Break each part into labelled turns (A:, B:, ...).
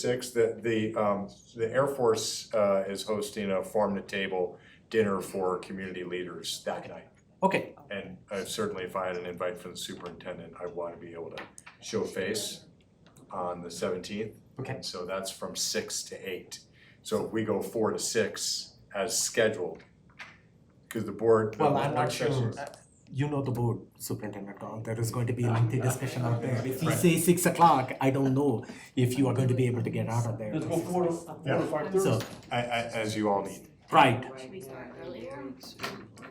A: sixth, that the, um, the Air Force, uh, is hosting a farm-to-table dinner for community leaders that night.
B: Okay,
A: And uh, certainly if I had an invite from the superintendent, I want to be able to show face on the seventeenth.
B: Okay.
A: And so that's from six to eight. So if we go four to six as scheduled, because the board. the
B: well, I'm not
A: work
B: sure,
A: sessions-
B: uh, you know the board, Superintendent Don, there is going to be lengthy discussion out there. If you
A: Right.
B: say six o'clock, I don't know if you are going to be able to get out of there.
C: Let's go four to, four to five
B: So,
C: thirty.
A: I, I, as you all need.
B: right,
D: Should we start earlier?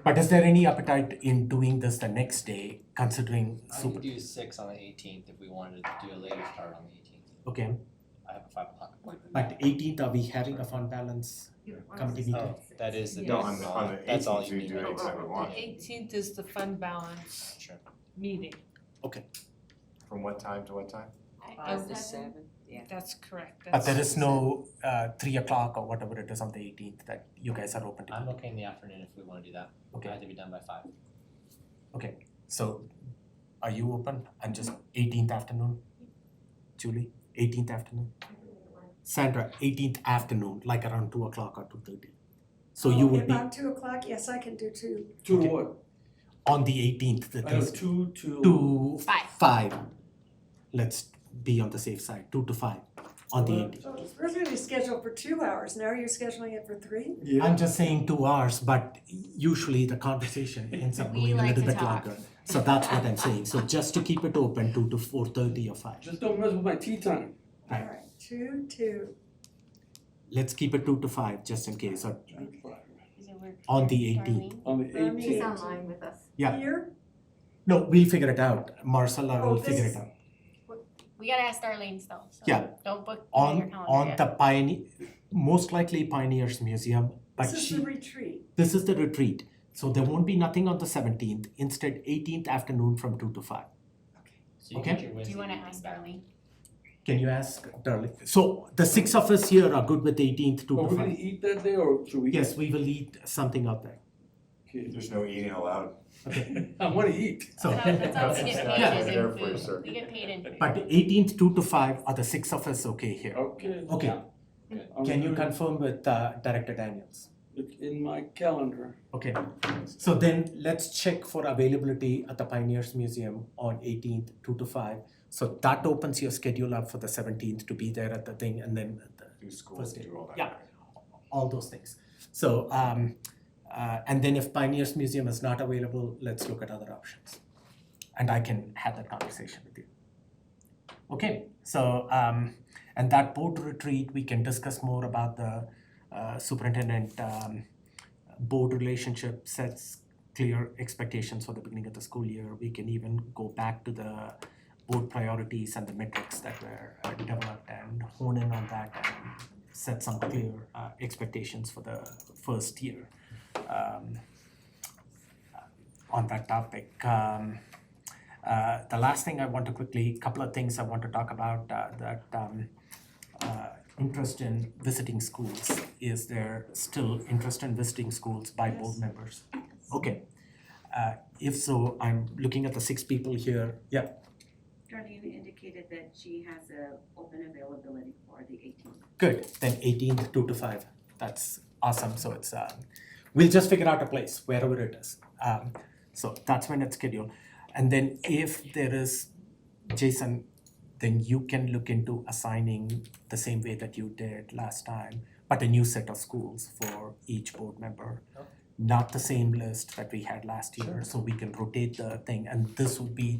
B: but is there any appetite in doing this the next day, considering
E: I could
B: super,
E: do six on the eighteenth if we wanted to do a later start on the eighteenth.
B: okay?
E: I have a five o'clock appointment.
B: But eighteenth, are we having a fund balance committee meeting?
E: Oh, that is the.
A: No, on the- on the
E: That's all
A: 18th,
E: you
A: we
E: need.
A: do
E: right?
A: exactly one.
F: Eighteenth is the fund balance
E: Sure.
F: meeting,
A: From what time to what time?
D: Five to seven, yeah.
F: that's correct,
B: But
F: that's.
B: there is no, uh, three o'clock or whatever it is on the eighteenth that you guys are open
E: I'm
B: to,
E: okay in the afternoon if we wanna do that.
B: Okay.
E: I have to be done by five.
B: so are you open? I'm just eighteenth afternoon? Julie, eighteenth afternoon? Sandra, eighteenth afternoon, like around two o'clock or two thirty. So you
G: Oh,
B: would be
G: About two o'clock, yes, I can do two.
C: Two to
B: Okay.
C: what?
B: on the eighteenth, the
C: I have
B: Thursday,
C: two to.
B: two,
D: Five.
B: five. Let's be on the safe side, two to five on the eighteenth.
G: So it's originally scheduled for two hours, now you're scheduling it for three?
C: Yeah.
B: I'm just saying two hours, but usually the conversation ends up
D: We
B: going a
D: like
B: little
D: to
B: bit
D: talk.
B: longer. So that's what I'm saying. So just to keep it open, two to four thirty or five.
C: Just don't mess with my tea time.
G: All
B: Right.
G: right, two, two,
B: Let's keep it two to five just in case. Or On
D: On
B: the
D: the
B: 18th.
D: eighteenth.
C: On the
G: Um,
C: eighteenth.
G: yeah.
D: online with us.
B: Yeah.
G: here,
B: no, we'll figure it out. Marcella
G: Oh,
B: will figure
G: this-
B: it out.
D: We gotta ask Darlene still, so
B: Yeah.
D: don't book it on your
B: On
D: calendar
B: on
D: yet.
B: the pioneer most likely Pioneers Museum, but
G: this is
B: she
G: the retreat.
B: this is the retreat. So there won't be nothing on the seventeenth, instead eighteenth afternoon from two to five.
E: So you get
B: Okay.
E: your
D: Do
E: Wednesday
D: you wanna
E: evening
D: ask
E: back.
D: Darlene?
B: Can you ask darling? So the six of us here are good with eighteenth, two
C: Are
B: to
C: we gonna
B: five.
C: eat that day or should we?
B: Yes, we will eat something out there.
C: Okay.
A: There's no eating allowed.
C: I wanna eat.
B: So
D: No, that's how we get
A: That's
D: paid
A: not
D: is
A: there
D: in
A: for you, sir.
D: food, we get paid in food.
B: But eighteenth, two to five, are the six of us okay here?
C: Okay.
B: Okay,
C: I'm
B: can you
C: gonna-
B: confirm with uh, Director Daniels?
C: It's in my calendar.
B: Okay, so then let's check for availability at the Pioneers Museum on eighteenth, two to five. So that opens your schedule up for the seventeenth to be there at the thing and then at the
A: Do school,
B: First day.
A: do all that.
B: Yeah. all those things. So, um, uh, and then if Pioneers Museum is not available, let's look at other options. And I can have that conversation with you. Okay, so, um, and that board retreat, we can discuss more about the uh, superintendent um, board relationship sets clear expectations for the beginning of the school year. We can even go back to the board priorities and the metrics that were uh, developed and hone in on that and set some clear uh, expectations for the first year um, on that topic. Um, uh, the last thing I want to quickly, couple of things I want to talk about uh, that um, uh, interest in visiting schools. Is there still interest in visiting schools by board members? Okay. Uh, if so, I'm looking at the six people here. Yeah.
H: Darlene indicated that she has a open availability for the eighteenth.
B: Good, then eighteenth, two to five, that's awesome, so it's, um, we'll just figure out a place, wherever it is. Um, so that's when it's scheduled, and then if there is, Jason, then you can look into assigning the same way that you did last time, but a new set of schools for each board member.
E: Okay.
B: Not the same list that we had last year, so we can rotate the thing, and this would be,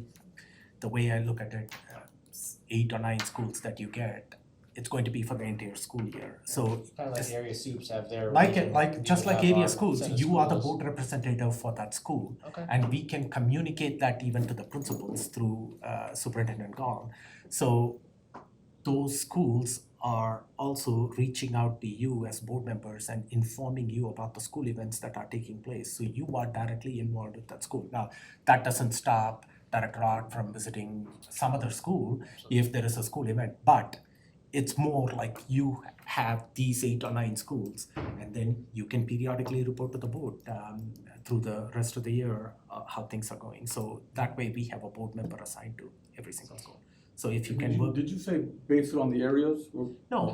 B: the way I look at it, uh, s- eight or nine schools that you get, it's going to be for the entire school year, so
E: Kinda like
B: Just-
E: the area soups have their.
B: like it,
E: region,
B: like, just
E: we
B: like
E: have
B: area
E: our
B: schools,
E: set of
B: you are the
E: schools.
B: board representative for that school.
E: Okay.
B: And we can communicate that even to the principals through uh, Superintendent Gall. So those schools are also reaching out to you as board members and informing you about the school events that are taking place. So you are directly involved with that school. Now, that doesn't stop Director Art from visiting some other school if there is a school event, but it's more like you have these eight or nine schools and then you can periodically report to the board um, through the rest of the year uh, how things are going. So that way we have a board member assigned to every single school. So if you
C: Did
B: can
C: you-
B: work,
C: Did you say based on the areas or
B: no,